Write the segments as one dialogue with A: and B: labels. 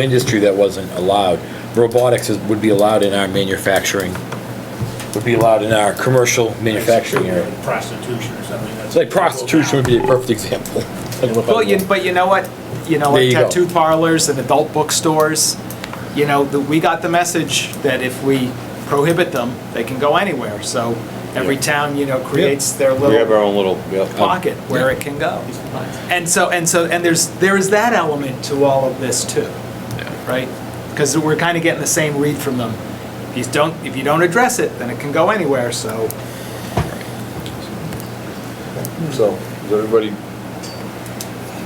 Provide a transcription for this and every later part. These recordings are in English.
A: industry that wasn't allowed. Robotics is, would be allowed in our manufacturing, would be allowed in our commercial manufacturing area.
B: Prostitution or something. that's-
A: Like prostitution would be a perfect example.
C: Well, you, but you know what? You know,
A: There
C: what?
A: you go.
C: tattoo parlors and adult bookstores, you know, the- we got the message that if we prohibit them, they can go anywhere. So every
D: Yeah.
C: town, you know, creates their
D: We have
C: little
D: our own little. yeah.
C: pocket where it can go. And so, and so, and there's, there is that element to all of this too, right? Because we're kind of getting the same read from them. If you don't, if you don't address it, then it can go anywhere, so.
D: So, is everybody,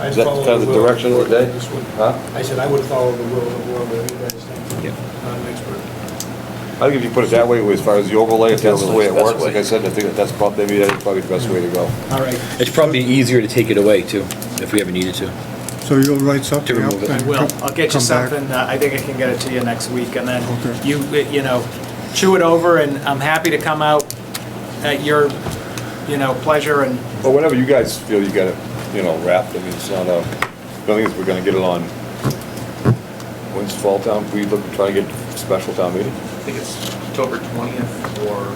B: I'd
D: is that
B: follow
D: kind of the
B: will.
D: direction of the day?
B: This would-
D: Huh?
B: I said I would follow the rule of the world, whatever you guys think.
D: Yeah.
B: Not an expert.
D: I think if you put it that way, as far as the overlay, if that's the way it
E: Overlay's the best
D: works, like I
E: way.
D: said, I think that that's probably, maybe that's probably the best way to go.
C: All right.
A: It's probably easier to take it away too, if we ever needed to.
F: So you'll write something
A: To
F: up?
A: remove it.
C: I
F: and
C: will.
F: co-
C: I'll get you
F: come back?
C: something. uh, I think I can get it to you next week, and then
F: Okay.
C: you, uh, you know, chew it over, and I'm happy to come out at your, you know, pleasure and,
D: But whenever you guys feel you got it, you know, wrapped, I mean, it's not a, the only thing is we're gonna get it on, when's fall town, we look, try to get special town meeting?
E: I think it's October 20th or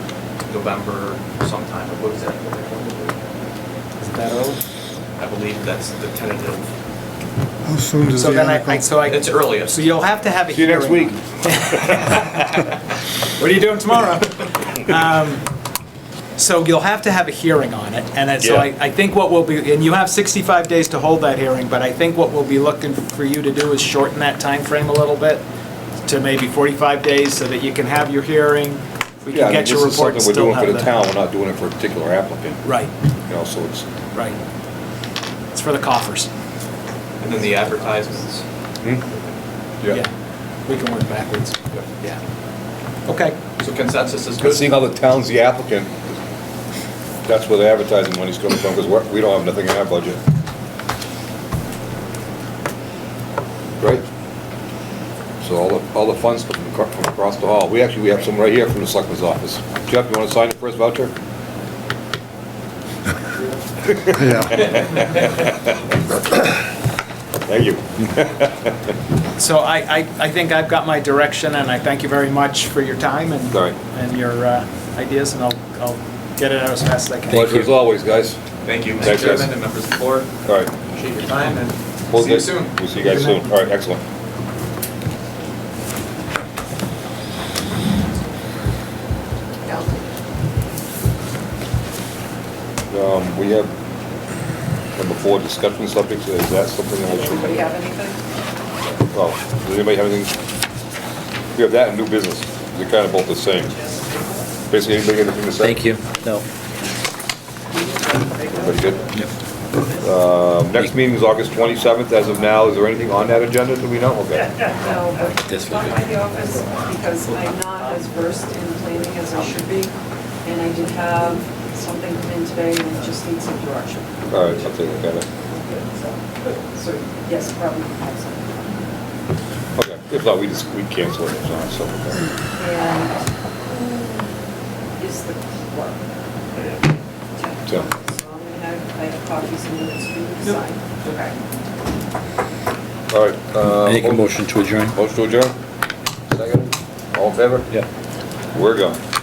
E: November sometime, what was that?
C: is that early?
E: I believe that's the tentative.
F: How soon does
C: So
F: the
C: then I- I,
F: article?
C: so I,
E: It's earliest.
C: so you'll have to have a
D: See you
C: hearing.
D: next week.
C: What are you doing tomorrow? Um, So you'll have to have a hearing on it, and it's- so I, I think what we'll be, and you have 65 days to hold that hearing, but I think what we'll be looking for you to do is shorten that time frame a little bit to maybe 45 days so that you can have your hearing, we
D: Yeah, I
C: can
D: mean,
C: get
D: this
C: your report
D: is something
C: and
D: we're
C: still
D: doing for
C: have
D: the
C: the.
D: town, we're not doing it for a particular applicant,
C: Right,
D: you know, so it's,
C: right. It's for the coffers.
E: And then the advertisements.
D: yeah.
C: We can work backwards.
D: Yeah.
C: Yeah. Okay.
E: So consensus is
D: But
E: good.
D: seeing how the town's the applicant, that's where the advertising money's coming from, because we don't have nothing in our budget. Right? So all the, all the funds come from acro- from across the hall. We actually, we have some right here from the selectman's office. Jeff, you want to sign the first voucher?
F: Yeah,
D: Thank you.
C: So I, I, I think I've got my direction, and I thank you very much for your time and,
D: All right.
C: and your uh, ideas, and I'll, I'll get it out as fast as I can.
D: Pleasure as always, guys.
E: Thank you, Mr.
D: Thanks, guys.
E: Chairman and members of the board.
D: All right.
E: Appreciate your time and
D: We'll-
E: see you soon.
D: We'll see you guys soon. All right, excellent. Um, we have, number four, discussion subjects, is that something that we should?
G: Anybody have anything?
D: Oh, does anybody have anything? We have that and new business, they're kind of both the same. Basically, anybody got anything to say?
A: Thank you. No.
D: Everybody good? Um, next meeting is August twenty-seventh, as of now, is there anything on that agenda, do we know? Okay.
G: No,
A: This
G: but
A: would
G: not
A: be-
G: by the office because I'm not as versed in planning as I should be. And I did have something come in today and I just need some direction.
D: All right, I'll take a look at it.
G: So, yes, probably have something.
D: Okay, if not, we just, we cancel it, if not, so. okay.
G: And who is the clerk? Jeff. So
D: Jeff.
G: I'm gonna have, I have copies in the next room to sign. Okay.
D: All right. uh,
A: Make a motion to adjourn.
D: Motion to adjourn? Second? All in favor?
A: Yeah.
D: We're gone.